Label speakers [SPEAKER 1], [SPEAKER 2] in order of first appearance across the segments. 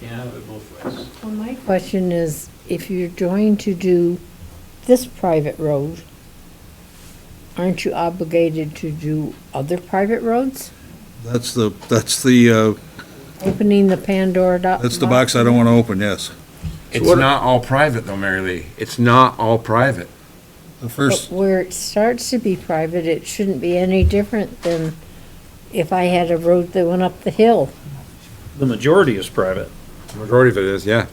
[SPEAKER 1] Can't have it both ways.
[SPEAKER 2] Well, my question is, if you're going to do this private road, aren't you obligated to do other private roads?
[SPEAKER 3] That's the, that's the, uh,
[SPEAKER 2] Opening the Pandora do-
[SPEAKER 3] that's the box I don't want to open, yes.
[SPEAKER 4] It's not all private though, Mary Lee. It's not all private.
[SPEAKER 3] The
[SPEAKER 2] But
[SPEAKER 3] first,
[SPEAKER 2] where it starts to be private, it shouldn't be any different than if I had a road that went up the hill.
[SPEAKER 5] The majority is private.
[SPEAKER 4] Majority of it is, yeah.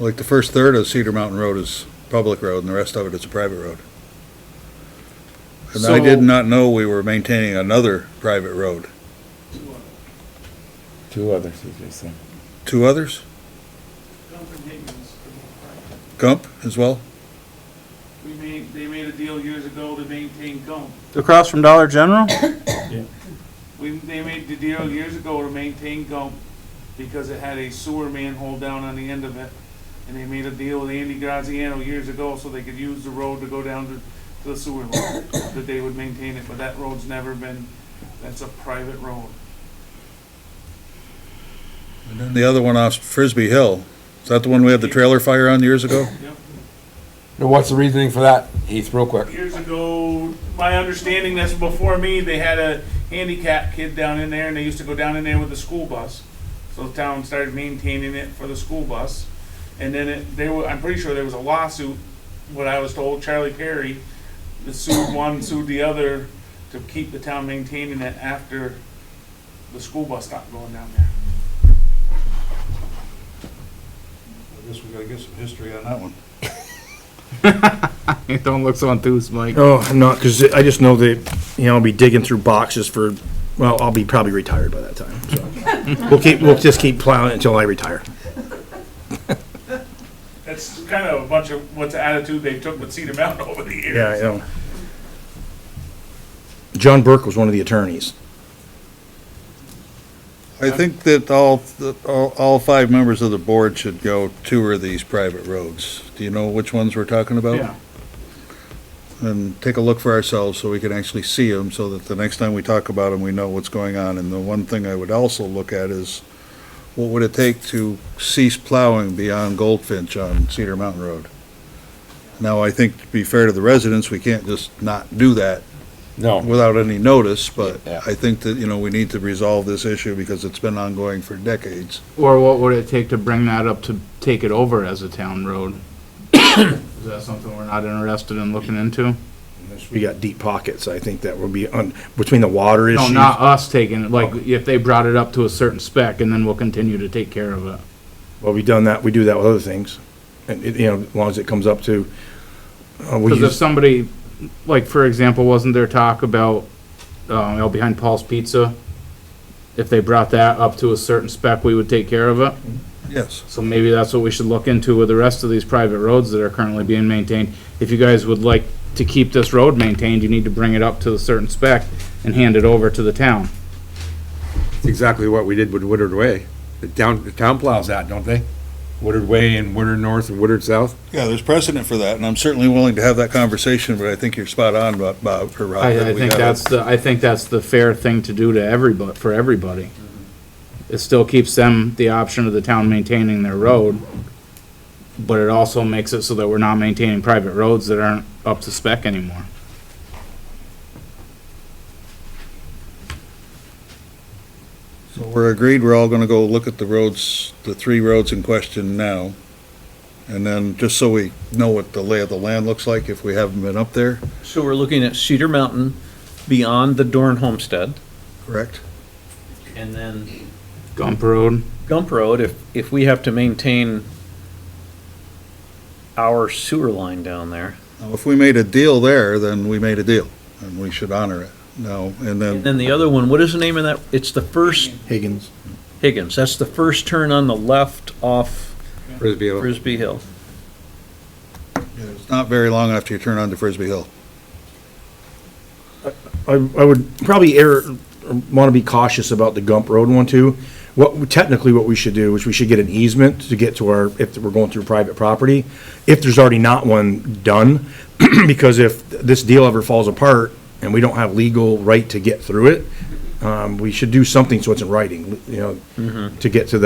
[SPEAKER 3] like, the first third of Cedar Mountain Road is public road, and the rest of it is a private road. And I
[SPEAKER 4] So-
[SPEAKER 3] did not know we were maintaining another private road.
[SPEAKER 6] uh,
[SPEAKER 4] Two others, as they say.
[SPEAKER 3] Two others? Gump as well?
[SPEAKER 6] We made, they made a deal years ago to maintain Gump.
[SPEAKER 5] Across from Dollar General?
[SPEAKER 6] We, they made the deal years ago to maintain Gump because it had a sewer manhole down on the end of it. And they made a deal with Andy Graziano years ago so they could use the road to go down to, to the sewer line, that they would maintain it, but that road's never been, that's a private road.
[SPEAKER 3] And then the other one off Frisbee Hill. Is that the one we had the trailer fire on years ago?
[SPEAKER 4] Now, what's the reasoning for that, Heath, real quick?
[SPEAKER 6] Years ago, my understanding, that's before me, they had a handicapped kid down in there, and they used to go down in there with the school bus. So the town started maintaining it for the school bus. And then it, they were, I'm pretty sure there was a lawsuit, what I was told, Charlie Perry, that sued one, sued the other, to keep the town maintaining it after the school bus stopped going down there.
[SPEAKER 3] I guess we gotta get some history on that one.
[SPEAKER 7] Don't look so enthused, Mike.
[SPEAKER 5] Oh, I'm not, because I just know that, you know, I'll be digging through boxes for, well, I'll be probably retired by that time, so. We'll keep, we'll just keep plowing it until I retire.
[SPEAKER 6] That's kind of a bunch of, what's the attitude they took with Cedar Mountain over the years.
[SPEAKER 5] Yeah, I know. John Burke was one of the attorneys.
[SPEAKER 3] I think that all, that all, all five members of the board should go tour these private roads. Do you know which ones we're talking about?
[SPEAKER 6] Yeah.
[SPEAKER 3] And take a look for ourselves so we can actually see them, so that the next time we talk about them, we know what's going on. And the one thing I would also look at is, what would it take to cease plowing beyond Goldfinch on Cedar Mountain Road? Now, I think to be fair to the residents, we can't just not do that
[SPEAKER 4] No.
[SPEAKER 3] without any notice, but
[SPEAKER 4] Yeah.
[SPEAKER 3] I think that, you know, we need to resolve this issue because it's been ongoing for decades.
[SPEAKER 7] Or what would it take to bring that up to take it over as a town road? Is that something we're not interested in looking into?
[SPEAKER 5] We got deep pockets, I think that will be on, between the water
[SPEAKER 7] No,
[SPEAKER 5] issues.
[SPEAKER 7] not us taking, it. like, if they brought it up to a certain spec and then we'll continue to take care of it.
[SPEAKER 5] Well, we've done that, we do that with other things, and, it- you know, as long as it comes up to, uh, we
[SPEAKER 7] Because if
[SPEAKER 5] use,
[SPEAKER 7] somebody, like, for example, wasn't there talk about, um, out behind Paul's Pizza? If they brought that up to a certain spec, we would take care of it?
[SPEAKER 3] Yes.
[SPEAKER 7] So maybe that's what we should look into with the rest of these private roads that are currently being maintained. If you guys would like to keep this road maintained, you need to bring it up to a certain spec and hand it over to the town.
[SPEAKER 4] It's exactly what we did with Woodard Way. The town, the town plows that, don't they? Woodard Way and Woodard North and Woodard South.
[SPEAKER 3] Yeah, there's precedent for that, and I'm certainly willing to have that conversation, but I think you're spot on, Bob- Bob, or Rob. that
[SPEAKER 7] I, I
[SPEAKER 3] we
[SPEAKER 7] think
[SPEAKER 3] gotta-
[SPEAKER 7] that's the, I think that's the fair thing to do to everybody, for everybody. It still keeps them the option of the town maintaining their road, but it also makes it so that we're not maintaining private roads that aren't up to spec anymore.
[SPEAKER 3] So we're agreed, we're all gonna go look at the roads, the three roads in question now. And then, just so we know what the lay of the land looks like, if we haven't been up there,
[SPEAKER 1] So we're looking at Cedar Mountain beyond the Dorn Homestead,
[SPEAKER 3] correct?
[SPEAKER 1] and then
[SPEAKER 7] Gump Road,
[SPEAKER 1] Gump Road, if, if we have to maintain our sewer line down there.
[SPEAKER 3] Now, if we made a deal there, then we made a deal, and we should honor it. No, and
[SPEAKER 1] And
[SPEAKER 3] then,
[SPEAKER 1] then the other one, what is the name of that? It's the first
[SPEAKER 5] Higgins,
[SPEAKER 1] Higgins, that's the first turn on the left off
[SPEAKER 4] Frisbee. Hill.
[SPEAKER 1] Frisbee Hill.
[SPEAKER 3] it's not very long after you turn onto Frisbee Hill.
[SPEAKER 5] I, I would probably err, want to be cautious about the Gump Road one too. What, technically what we should do is we should get an easement to get to our, if we're going through private property, if there's already not one done, because if this deal ever falls apart and we don't have legal right to get through it, um, we should do something so it's in writing, you know, to get to that.